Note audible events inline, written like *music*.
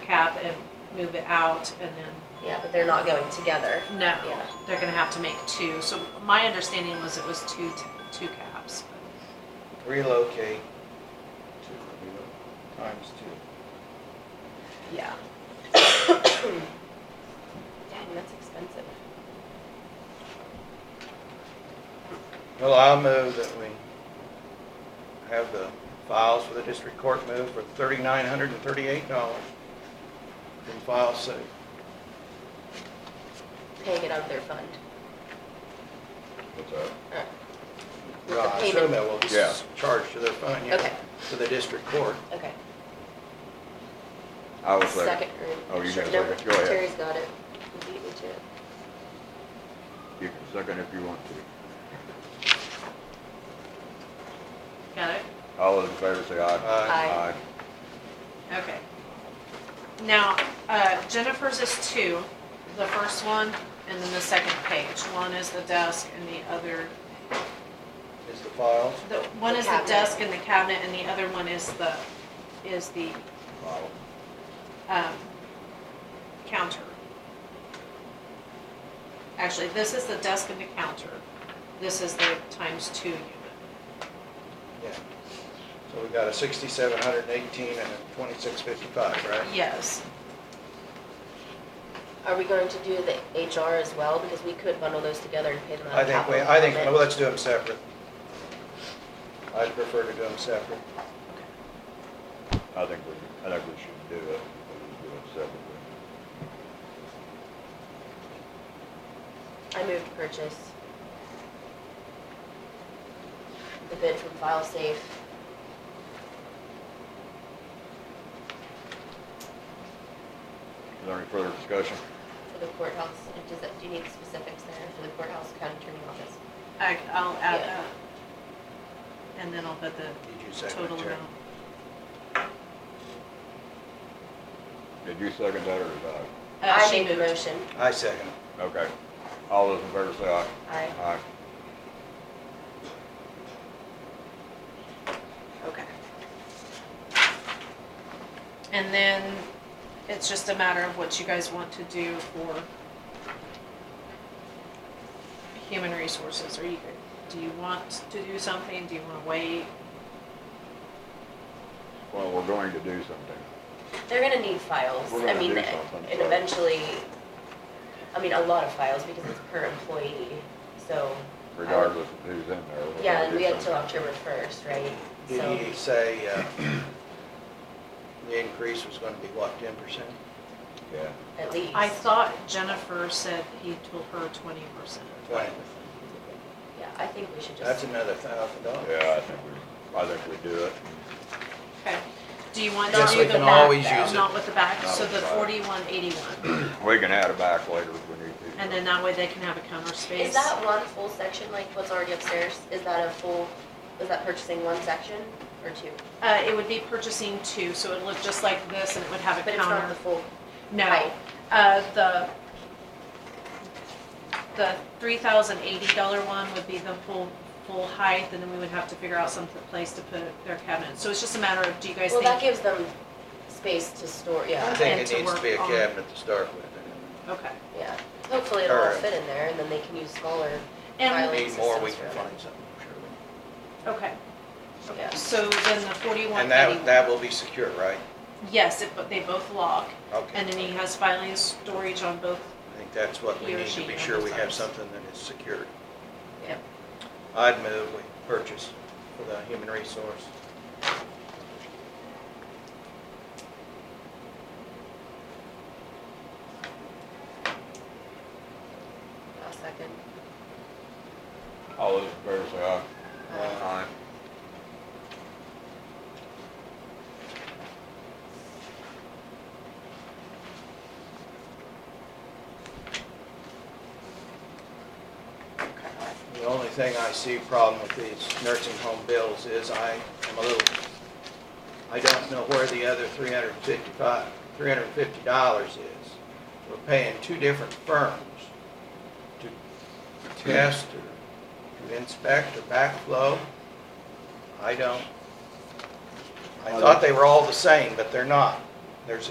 cap and move it out and then, Yeah, but they're not going together. no, Yeah. they're gonna have to make two. So my understanding was it was two, t- two caps. relocate to, times *coughs* two. Yeah. Dang, that's expensive. Well, I'll move that we have the files for the district court moved for thirty-nine hundred and thirty-eight dollars from file six. Paying it out of their fund. What's that? Uh, With the Well, I payment. assume that will Yeah. be charged to their fund, yeah, Okay. to the district court. Okay. I was like, Second. or- Oh, you sure, got a no, second. Go ahead. Terry's got it. You beat me to it. you can second if you want to. Got it? All those in favor say aye. Uh, Aye. Okay. Now, uh, Jennifer's is two, the first one and then the second page. One is the desk and the other, Is the files, the, one The is the cabinet. desk and the cabinet and the other one is the, is the, Model. um, counter. Actually, this is the desk and the counter. This is the times two unit. yeah. So we got a sixty-seven hundred and eighteen and a twenty-six fifty-five, right? Yes, Are we going to do the HR as well? Because we could bundle those together and pay them out I of think, capital. we. I think, well, improvement. let's do them separate. I'd prefer to do them separate. I think we, I think we should do it, we should do it separately. I moved to purchase the bid from File Safe. Is there any further discussion? For the courthouse, and does that, do you need specifics there for the courthouse county attorney office? I, I'll add Yeah. that. And then I'll put the Did you total second, Terry? amount. Did you second that or did I? Uh, I she made the moved. motion. I second. Okay. All those in favor say aye. Aye. Aye. Okay. And then it's just a matter of what you guys want to do for human resources. Are you, do you want to do something? Do you want to wait? Well, we're going to do something. They're gonna need files. We're gonna I mean, do and something, so- eventually, I mean, a lot of files because it's per employee, so. I would- regardless of who's in there. we're gonna Yeah, and do we had till something. October first, right? Did So he say uh, the increase was going to be what, ten percent? Yeah. at least. I thought Jennifer said he told her twenty percent. Right. Yeah, I think we should That's just, another thousand dollars. Yeah, I think we, I think we do it. Okay. Do you want to Yes, do we the can back always though? use it. Not with the back, Not so with the the back. forty-one eighty-one. We can add it back later if we need to. And then that way they can have a counter space. is that one full section, like what's already upstairs? Is that a full, is that purchasing one section or two? Uh, it would be purchasing two, so it would look just like this and it would have a But counter. it's not the full, No, Right. uh, the, the three thousand eighty dollar one would be the full, full height, and then we would have to figure out some place to put their cabinet. So it's just a matter of, do you guys well, that think? gives them space to store, I yeah, And think to it needs to be a work on- cabinet to start with. Okay, yeah. Hopefully it'll all Or- fit in there and then they can use smaller and, File. If we need more, we Systems can for that. find something, I'm sure. okay, Yeah. so then the And forty-one that, eighty, that will be secure, right? yes, if, but they both lock, and Okay. then he has filing storage on both, I think that's what we He or need she to be sure we have understands. something that is secured. Yep. I'd move we purchase for the human resource. A second. All those in favor say aye. Uh, Aye. The only thing I see problem with these nursing home bills is I am a little, I don't know where the other three hundred and fifty-five, three hundred and fifty dollars is. We're paying two different firms to test or to inspect or backflow. I don't, I thought they were all the same, but they're not. There's